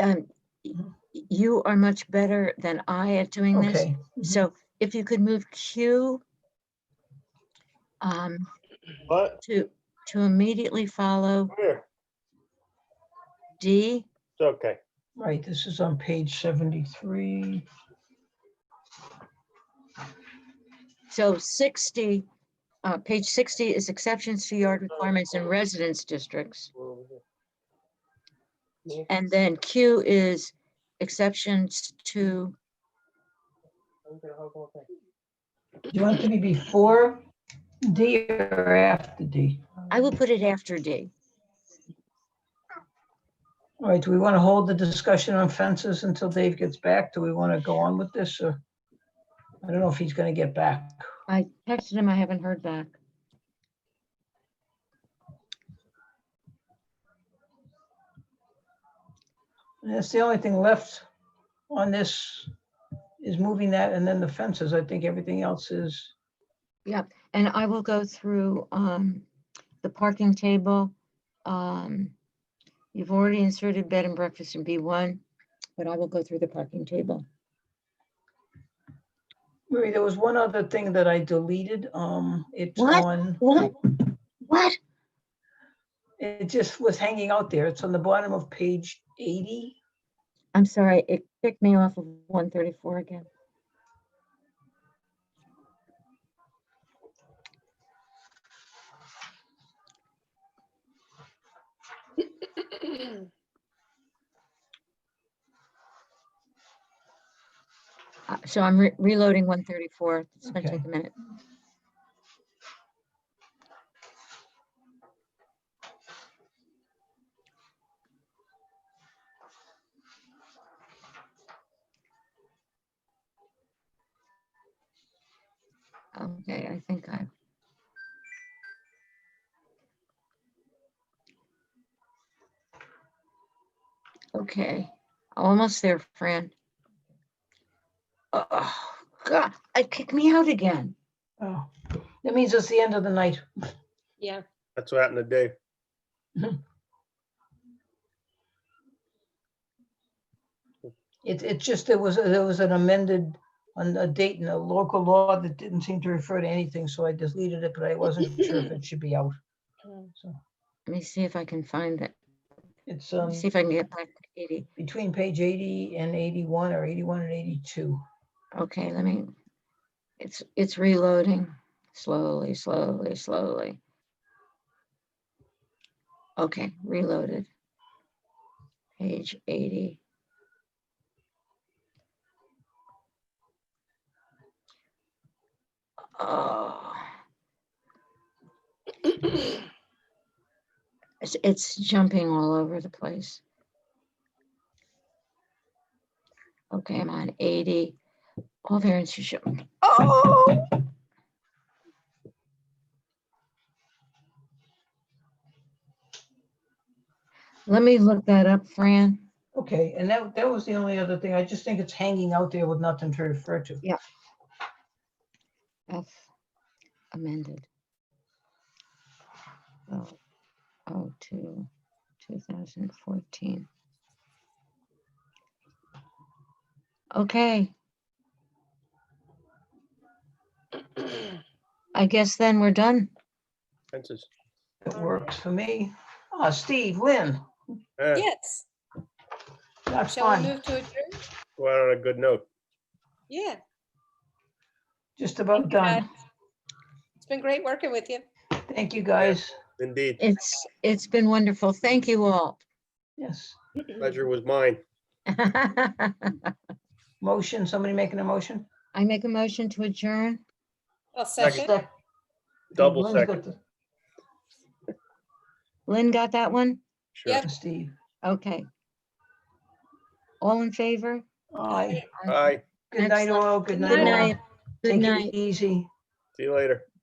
um, you are much better than I at doing this. Okay, So if you could move Q um, What? to, to immediately follow Here, D, it's okay. right, this is on page 73. so 60, uh, page 60 is exceptions to yard requirements in residence districts. And then Q is exceptions to, Do you want it to be before D or after D? I will put it after D. All right, do we want to hold the discussion on fences until Dave gets back? Do we want to go on with this or? I don't know if he's going to get back. I texted him, I haven't heard back. And that's the only thing left on this is moving that and then the fences. I think everything else is, And I will go through um, the parking table. Um, You've already inserted bed and breakfast in B1, but I will go through the parking table. Marie, there was one other thing that I deleted. Um, it's What? on, What? What? it just was hanging out there. It's on the bottom of page 80. I'm sorry, it kicked me off of 134 again. Uh, So I'm re- reloading 134. It's going to Okay. take a minute. Okay, I think I. Okay, almost there, Fran. Oh, God, it kicked me out again. Oh, that means it's the end of the night. Yeah, That's what happened today. It, it just, there was, there was an amended, on a date in a local law that didn't seem to refer to anything, so I deleted it, but I wasn't sure if it should be out. Mm. So Let me see if I can find it. It's Let um, me see if I can get back to 80. between page 80 and 81, or 81 and 82. Okay, let me, it's, it's reloading slowly, slowly, slowly. Okay, reloaded. Page 80. Oh. It's, it's jumping all over the place. Okay, I'm on 80. All variants are shown. Oh! Let me look that up, Fran. Okay, and that, that was the only other thing. I just think it's hanging out there with nothing to refer to. F amended. Oh, oh, two, two thousand fourteen. Okay, I guess then we're done. Fences. It works for me. Oh, Steve, Lynn, Yeah, yes. that's Shall we fine. move to adjourn? we're on a good note. Yeah. Just about guys. done. It's been great working with you. Thank you, guys. Indeed. It's, it's been wonderful. Thank you all. Yes. Pleasure was mine. I Motion, somebody making a motion? make a motion to adjourn. I'll second. Sec- Double Lynn's got second. the- Lynn got that one? Sure. Yep. Steve. Okay. All in favor? Aye. All right. Good night, Excellent. all. Good Good night, all. night. Good Take it night. Easy. See you later.